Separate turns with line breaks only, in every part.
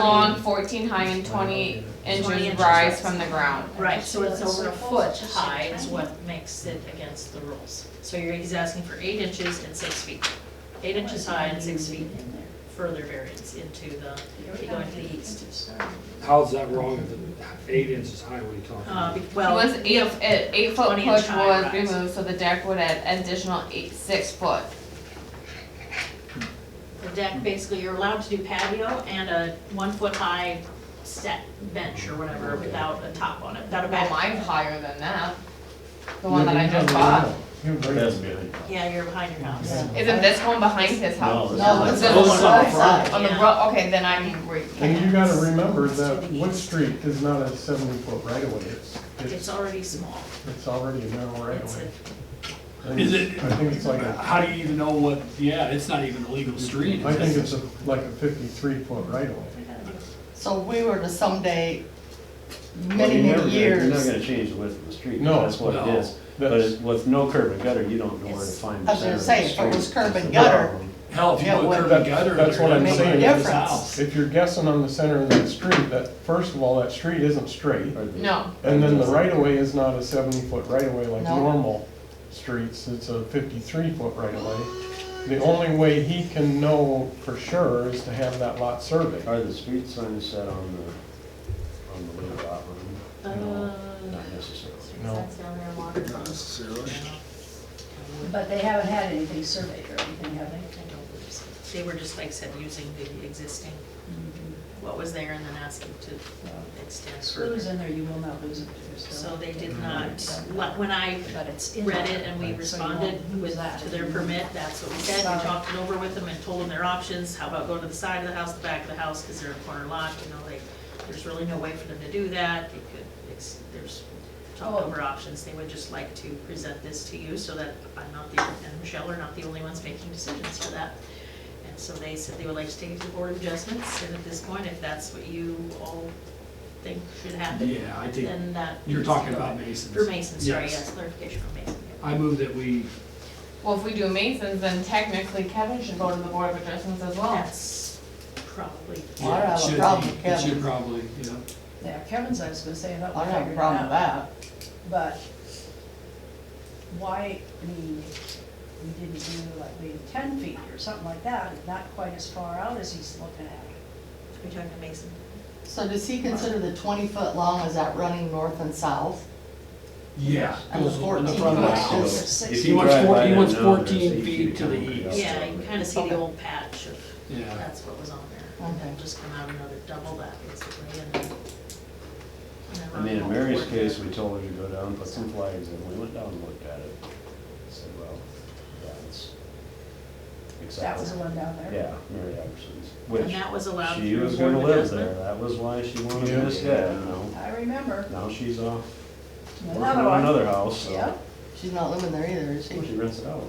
long, fourteen high, and twenty
Twenty
inches
inches
rise
rise.
from the ground.
Right, so it's over a foot high is what makes it against the rules. So you're, he's asking for eight inches and six feet. Eight inches high and six feet further variance into the, keep going to the east.
How's that wrong if the eight inches high, what are you talking
Uh,
about?
be-
It
well,
was eight, an eight-foot
20 inch
push
high
was
rise.
removed, so the deck would add additional eight, six foot.
the deck, basically, you're allowed to do patio and a one-foot-high set bench or whatever without a top on it, without a
Well,
back.
mine's higher than that, the one that I just bought.
That's really.
Yeah, you're behind your house.
Isn't this one behind his house?
No,
This
it's-
is
those
one
are
on-
front.
On the
Yeah.
road, okay, then I'm, re-
And you gotta remember that Wood Street is not a seventy foot right of way, it's,
It's
it's,
already small.
it's already a narrow right
It's
of
a-
way. I think-
Is it-
I think it's like a,
Uh, How do you even know what, yeah, it's not even a legal street.
I think it's a, like a fifty-three foot right of way.
So if we were to someday,
Well,
many,
you're never
many
gonna- You're not
years,
gonna change the width of the street,
No,
that's what it
no.
is. But
That's,
it- with no curb and gutter, you don't know where to
It's-
find the
I was
center
gonna
of the
say, if it was
street.
curb
That's
and
the
gutter,
problem.
Hell, if you
Yeah,
put
what-
curb and gutter,
that's what I'm
they're
saying.
in his
Difference.
house.
if you're guessing on the center of that street, that, first of all, that street isn't straight.
Or the-
no,
And then the right of way is not a seventy foot right of way like
No.
normal streets, it's a fifty-three foot right of way. The only way he can know for sure is to have that lot surveyed.
Are the street signs set on the, on the little lot line?
Uh,
Not necessarily.
No.
That's down there, water.
necessarily.
But they haven't had anything surveyed or anything, have they?
I don't believe so. They were just, like I said, using the existing, what was there and then asking to extend.
Who's in there, you will not lose it. if you're still-
So they did not, let- when I
But it's in
read
there.
it and we
So you won't
responded
lose
with,
that.
to their permit, that's what we said. We
Sorry.
talked it over with them and told them their options, how about going to the side of the house, the back of the house, because they're a corner lot, you know, they, there's really no way for them to do that, they could, ex- there's
Oh.
talked over options, they would just like to present this to you so that I'm not the, and Michelle are not the only ones making decisions for that. And so they said they would like to take it to the board of adjustments, and at this point, if that's what you all think should happen,
Yeah, I think,
then that.
you're talking about Masons.
For Mason, sorry, yes,
Yes.
clarification for Mason. yeah.
I move that we,
well, if we do Masons, then technically Kevin should go to the Board of Adjustments as
Oh.
well.
That's probably,
Well, I don't
yeah,
have a
it should
problem,
be, it should
Kevin.
probably, yeah.
Yeah, Kevin's, I was gonna say, I thought
I
we
don't have a
figured it
problem with
out,
that.
but why, I mean, we didn't do like maybe ten feet or something like that, not quite as far out as he's looking at.
we talking to Mason.
So does he consider the twenty foot long, is that running north and south?
Yeah.
And the
goes in the
14
front of the
foot
house.
is-
If
He
you
wants
drive
four-
by
he
that
wants
now, there's
14
eight
feet to the
concrete
east.
outside.
Yeah, you can kind of see
Okay.
the old patch of,
Yeah.
that's what was on there.
Okay.
And just come out another double that basically and then. then
I mean, in
Ron
Mary's
Waltz worked
case,
it.
we told her to go down, put some flags in, we went down and looked at it. Said, well, that's
That was the
acceptable.
one down there.
Yeah, Mary Albertson's,
And
which
that was allowed
she
through
was
board
gonna
of
live there,
adjustment.
that was why she wanted
Yeah.
this, yeah, you know.
I remember,
Now she's off working
another
on
one,
another house,
Yeah.
so
She's not living there either, is
she
she?
rents it out.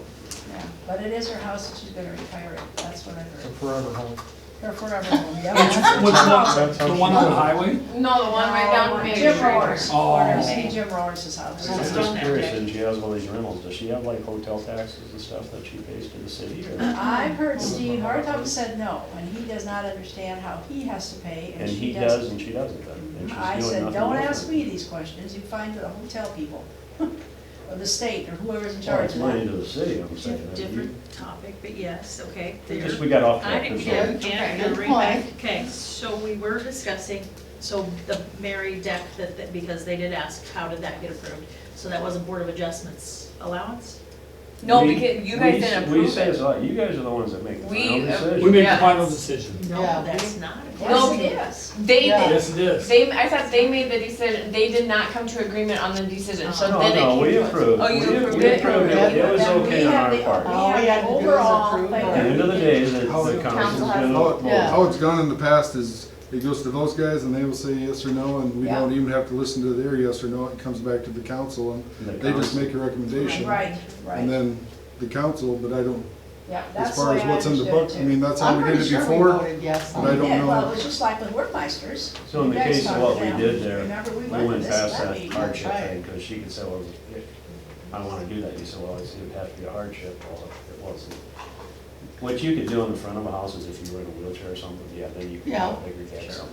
but it is her house and she's gonna retire it, that's what I
A
heard.
forever home.
Her forever home, yeah.
Which one,
That's
the
how she.
one on the highway?
No, the one right down
No,
Main
Jim
Street.
Roars,
Oh.
corner, see Jim Roars' house.
I'm
It's
just
on there,
curious,
okay.
and she has one of these rentals, does she have like hotel taxes and stuff that she pays to the city or?
I've heard Steve Hartog said no, and he does not understand how he has to pay, and
And
she
he does
doesn't.
and she doesn't then, and she's doing
I
nothing.
said, don't
with
ask
it."
me these questions, you find the hotel people, or the state, or whoever's in
Well,
charge
Oh, it's
of
money
that.
to the city, I'm saying.
Diff- Different topic, but yes, okay.
We
there.
Just, we got off
I
track.
didn't
that's
get,
all.
it. yeah,
Okay,
you're
good
right back. Okay, so we were discussing, so the Mary deck that, that- because they did ask, how did that get approved? So that was a Board of Adjustments allowance?
No,
We-
because you
we
guys
s-
didn't
We
approve
say it's
it.
like, you guys are the ones that make the
We-
final decision.
We make the
Yes.
final decision.
No,
Yeah.
that's not. a-
No,
Yes, it is.
They
Yeah.
did,
Yes, it is.
they, I thought they made the decision, they did not come to agreement on the decision, so
No,
then it came to us.
no, we approved.
Oh, you
We-
approved
We
it?
approved it, it was
Then we
okay on
have
our
the-
part.
Oh,
All we
We
had
have
to
the
do was
overall
approve
thing.
it.
At the end of the day, the the council's
Council has-
How,
gonna.
it-
Yeah.
how it's gone in the past is, it goes to those guys and they will say yes or no, and we
Yeah.
don't even have to listen to their yes or no, it comes back to the council, and
the
they just
council-
make a recommendation.
Right,
And
right,
then the council, but I don't,
yeah,
as
that's the
far
way
as
I
what's in the
understood
book,
it
I
too.
mean, that's how
I'm
we did
pretty
it
sure we
before.
voted yes
but I
on
don't
Yeah,
know.
well, it was just like with Workmeisters.
So in the
You guys
case of
talked
what we
about-
did there,
Remember, we
We
went
went
to this,
past
that
that
meeting.
hardship
Right.
thing, because she could say, well, it- I don't wanna do that, you said, well, it's- it would have to be a hardship, well, it wasn't. What you could do in the front of a house is if you were in a wheelchair or something, yeah, then you could
Yeah.
figure that out.